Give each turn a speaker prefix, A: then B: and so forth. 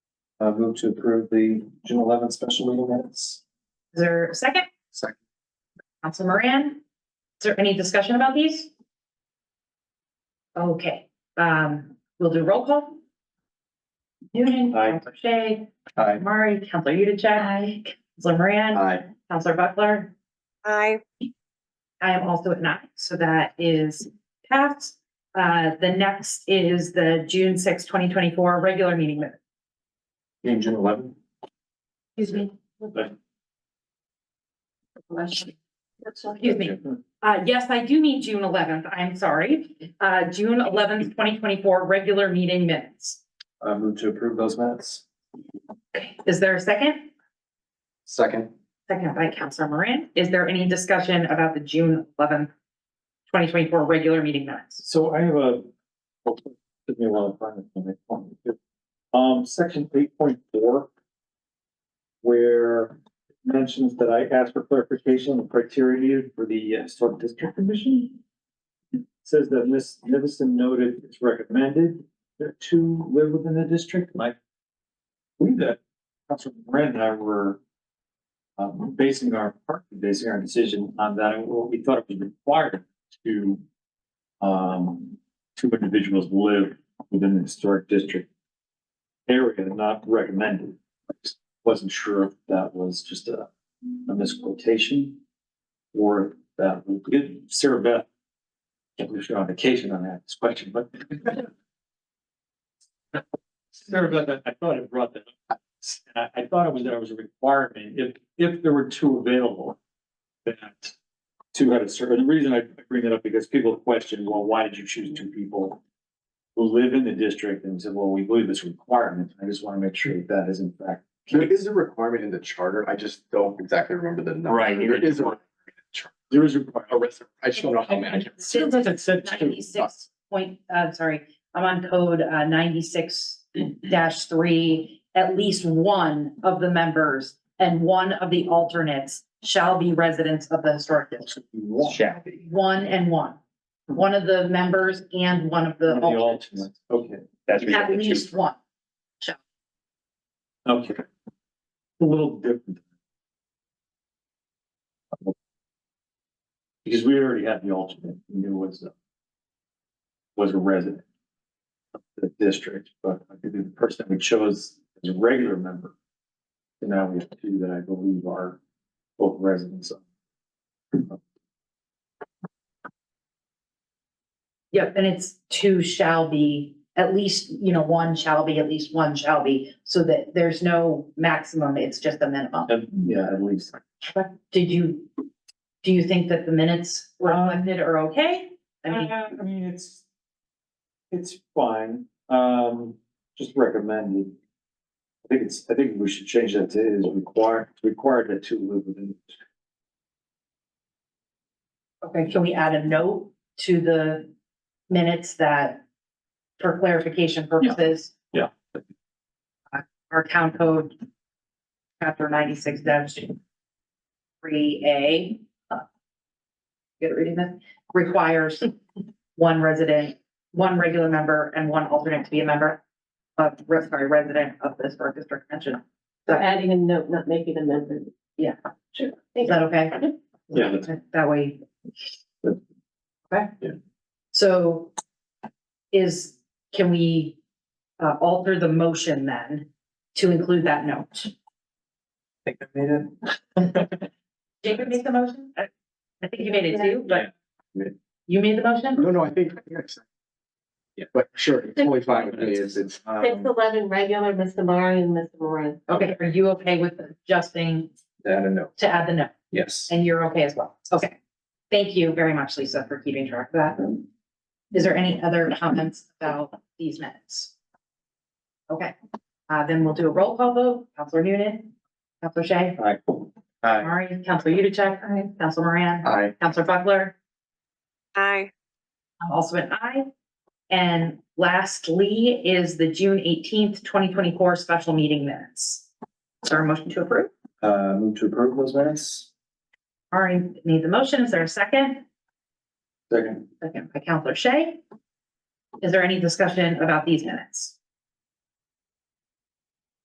A: Uh, move to approve the June eleventh special meeting minutes.
B: Is there a second?
A: Second.
B: Council Moran? Is there any discussion about these? Okay, um, we'll do roll call. Noonan.
A: Aye.
B: Counselor Shay.
A: Aye.
B: Murray. Counselor Yudichak. Aye. Counselor Moran.
A: Aye.
B: Counselor Buckler.
C: Aye.
B: I am also at nine, so that is passed. Uh, the next is the June sixth, twenty twenty-four regular meeting minutes.
A: In June eleventh.
B: Excuse me.
A: Okay.
B: Excuse me. Uh, yes, I do need June eleventh. I'm sorry. Uh, June eleventh, twenty twenty-four, regular meeting minutes.
A: Uh, move to approve those minutes.
B: Okay. Is there a second?
A: Second.
B: Second by Counselor Moran. Is there any discussion about the June eleventh, twenty twenty-four, regular meeting minutes?
D: So I have a. oh, Took me a while to find it. but I found it. Um, section eight point four. Where it mentions that I asked for clarification on the criteria needed for the uh, historic district commission. Says that Ms. Nivison noted it's recommended that two live within the district, and I believe that Councilor Brand and I were. Um, basing our, partly basing our decision on that, and what we thought it was required to um, two individuals live within the historic district area, not recommended. Wasn't sure if that was just a, a misquotation or that, Sarah Beth, can't believe you're on vacation on that question, but Sarah Beth, I I thought it brought that up. And I, I thought it was that it was a requirement, if, if there were two available, that two had a certain, the reason I bring that up because people question, well, why did you choose two people? Who live in the district and said, well, we believe it's a requirement. I just want to make sure that that is in fact.
E: There is a requirement in the charter. I just don't exactly remember the number.
D: Right.
E: There is a,
D: There is a
E: a
D: requirement.
E: res- I just don't know how many. I can't-
D: It said two.
B: Ninety-six point, uh, sorry, I'm on code, uh, ninety-six dash three. At least one of the members and one of the alternates shall be residents of the historic district.
D: Shall be.
B: One and one. One of the members and one of the
D: The
B: alternates.
D: alternate. Okay,
B: At least one.
D: okay. A little different. Because we already had the alternate, we knew was a, was a resident of the district, but I think the person that we chose is a regular member. And now we have two that I believe are both residents. of-
B: Yep, and it's two shall be, at least, you know, one shall be, at least one shall be, so that there's no maximum, it's just a minimum.
D: And, yeah, at least.
B: Did you, do you think that the minutes reflected are okay? I mean,
D: Uh, I mean, it's, it's fine, um, just recommended. I think it's, I think we should change that to is required, required that two live within.
B: okay, can we add a note to the minutes that, for clarification purposes?
D: Yeah.
B: Uh, Our town code, chapter ninety-six dash three A. Good reading that, requires one resident, one regular member and one alternate to be a member of, sorry, resident of the historic district mentioned.
F: So adding a note, not making an amendment.
B: Yeah.
F: Sure.
B: Is that okay?
D: Yeah.
B: That way. Okay?
D: Yeah.
B: So is, can we uh alter the motion then to include that note?
A: Think I made it.
B: Jacob made the motion? I I think you made it too, but
E: Yeah.
B: you made the motion?
E: No,
D: Mm-hmm.
E: no, I think. I think I said- Yeah, but sure, it's totally fine with me. It's, it's,
F: Six
E: um,
F: eleven, regular, Mr. Murray and Mr. Moran.
B: Okay, are you okay with adjusting
E: I don't know.
B: to add the note?
E: Yes.
B: And you're okay as well? Okay. Thank you very much, Lisa, for keeping track of that. Is there any other comments about these minutes? Okay, uh, then we'll do a roll call vote. Counselor Noonan, Counselor Shay,
D: Aye.
A: Aye.
B: Murray, Counselor Yudichak, Counselor Moran,
E: I,
B: Counselor Buckler,
C: Aye.
B: I'm also an aye. And lastly is the June eighteenth, twenty twenty-four special meeting minutes. Is there a motion to approve?
A: Uh, move to approve those minutes.
B: Murray made the motion. Is there a second?
D: Second.
B: Second by Counselor Shay. Is there any discussion about these minutes?